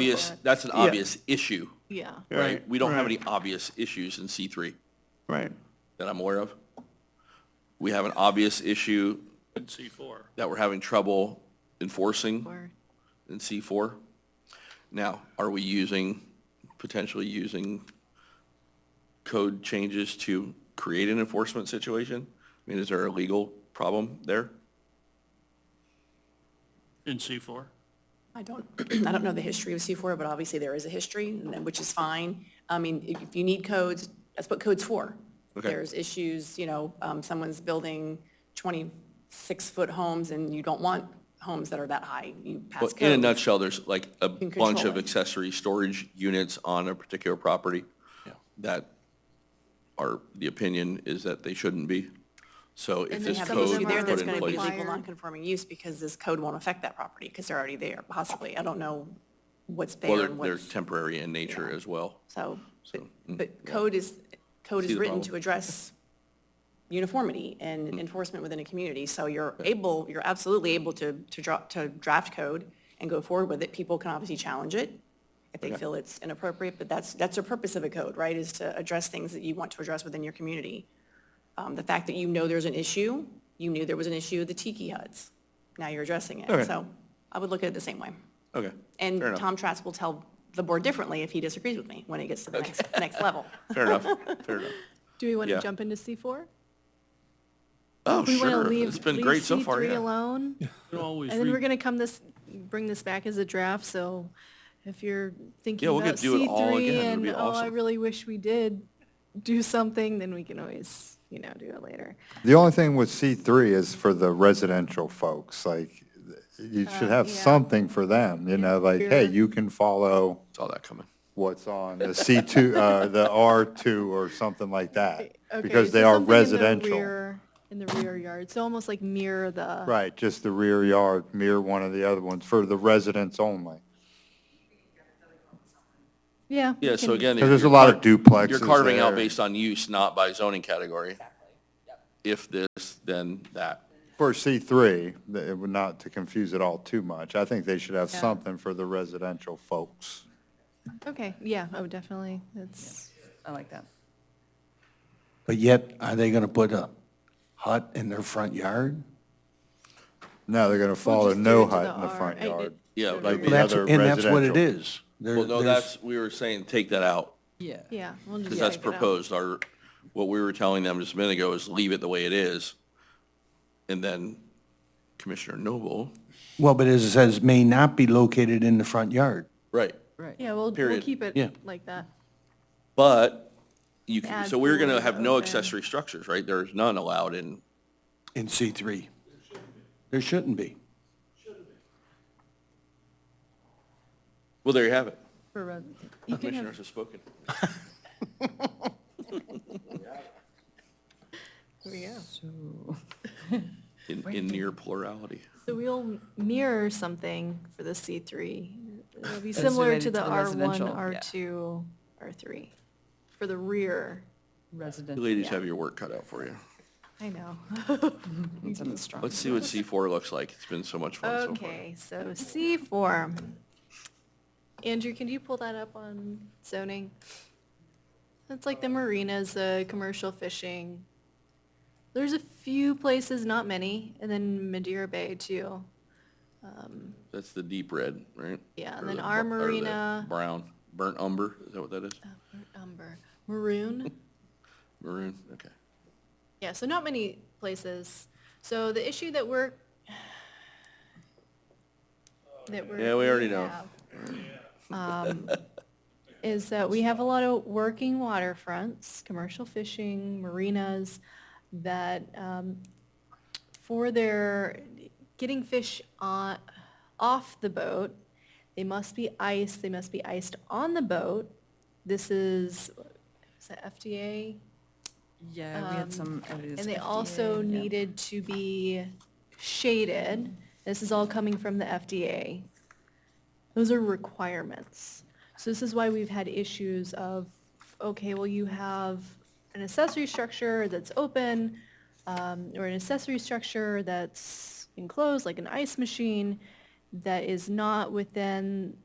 obvious, but- that's an Yeah. obvious issue, Yeah, right? Right, We don't have right. any obvious issues in C3 Right. that I'm aware of. We have an obvious issue in C4. that we're having trouble enforcing or, in C4. Now, are we using, potentially using code changes to create an enforcement situation? I mean, is there a legal problem there? In C4? I don't, I don't know the history of C4, but obviously there is a history, and then- which is fine. I mean, if if you need codes, that's what code's for. Okay. There's issues, you know, um, someone's building 26-foot homes, and you don't want homes that are that high. You pass But code. in a nutshell, there's like a can bunch control of it. accessory storage units on a particular property that are, the opinion is that they shouldn't be. So if And this then Have some an of code issue them there are that's put in going to be place, required. legal non-conforming use because this code won't affect that property because they're already there, possibly. I don't know what's well, there they're, and they're what's, temporary in nature as well. so. but- But code is, code mm, See is the written problem. Mm. to address uniformity and enforcement within a community. So you're able, you're absolutely able to, to draw, to draft code and go forward with it. People can obviously challenge it if they feel it's inappropriate, but that's, that's the purpose of a code, right? Is to address things that you want to address within your community. Um, the fact that you know there's an issue, you knew there was an issue with the tiki huts. Now you're addressing Okay. it. So I would look at it the same way. Okay. And Fair enough. Tom Trask will tell the board differently if he disagrees with me when it gets to the next, next level. Fair enough, fair enough. do we want Yeah. to jump into C4? Oh, We want to sure. leave, It's been leave great so far, C3 yeah. alone? You can always And then we're re- going to come this, bring this back as a draft, so if you're thinking Yeah, we'll about get to do it all C3 again. It'd and, be oh, I awesome." really wish we did do something, then we can always, you know, do it later. The only thing with C3 is for the residential folks, like, you should have Uh, yeah. something for them, you know, like, hey, Yeah. you can follow Saw that coming. what's on the C2, uh, the R2 or something like that, Okay, because so they are something in the residential. rear- In the rear yard, so almost like mirror the. Right, just the rear yard, mirror one of the other ones, for the residents only. Yeah. we Yeah, so can- again. Because there's a you're lot of car- duplexes You're carving out there. based on use, not by zoning category. If this, then that. For C3, th- it would not to confuse it all too much, I think they should have something for the residential folks. Okay, yeah, oh, definitely, that's, I like that. But yet, are they going to put a hut in their front yard? No, they're going to follow just do it no to hut the in the R- front I- yard. Yeah, Well, like The Well, that's- other And that's what it residential. is. There- Well, no, there's- that's, we were saying, take that out, Yeah. yeah, we'll just. because that's take it out. proposed. Our, what we were telling them just a minute ago is leave it the way it is. And then Commissioner Noble. Well, but as it says, may not be located in the front yard. Right. Right. Yeah, we'll, we'll Period. keep Yeah. it like that. But you can, Add so we're going to pools, have no open. accessory structures, right? There's none allowed in, In C3. There shouldn't be. well, there you have it. For res- you can have, Commissioners have spoken. In, in near plurality. so we'll mirror something for the C three. It'll be similar related to the to R the one, residential, R yeah. two, R three, for the rear. You Residential. ladies have your work cut out for you. I know. It's an instruct- Let's see what C4 looks like. Oh, It's been so much fun so far. Okay, so C four. Andrew, can you pull that up on zoning? It's like the marinas, the commercial fishing. There's a few places, not many, and then Madeira Bay too. That's the deep red, right? Yeah, and Or then the our bu- or the marina- Brown, burnt umber, is that what that is? Uh. Umber, maroon. Maroon, okay. Yeah, so not many places. So the issue that we're that we're Yeah, we already know. have, um, is that we have a lot of working waterfronts, commercial fishing, marinas that um, for their getting fish on off the boat, they must be iced. They must be iced on the boat. This is is that FDA Yeah, we had some. and they also needed to be shaded. This is all coming from the FDA. Those are requirements. So this is why we've had issues of, okay, well, you have an accessory structure that's open, um, or an accessory structure that's enclosed, like an ice machine, that is not within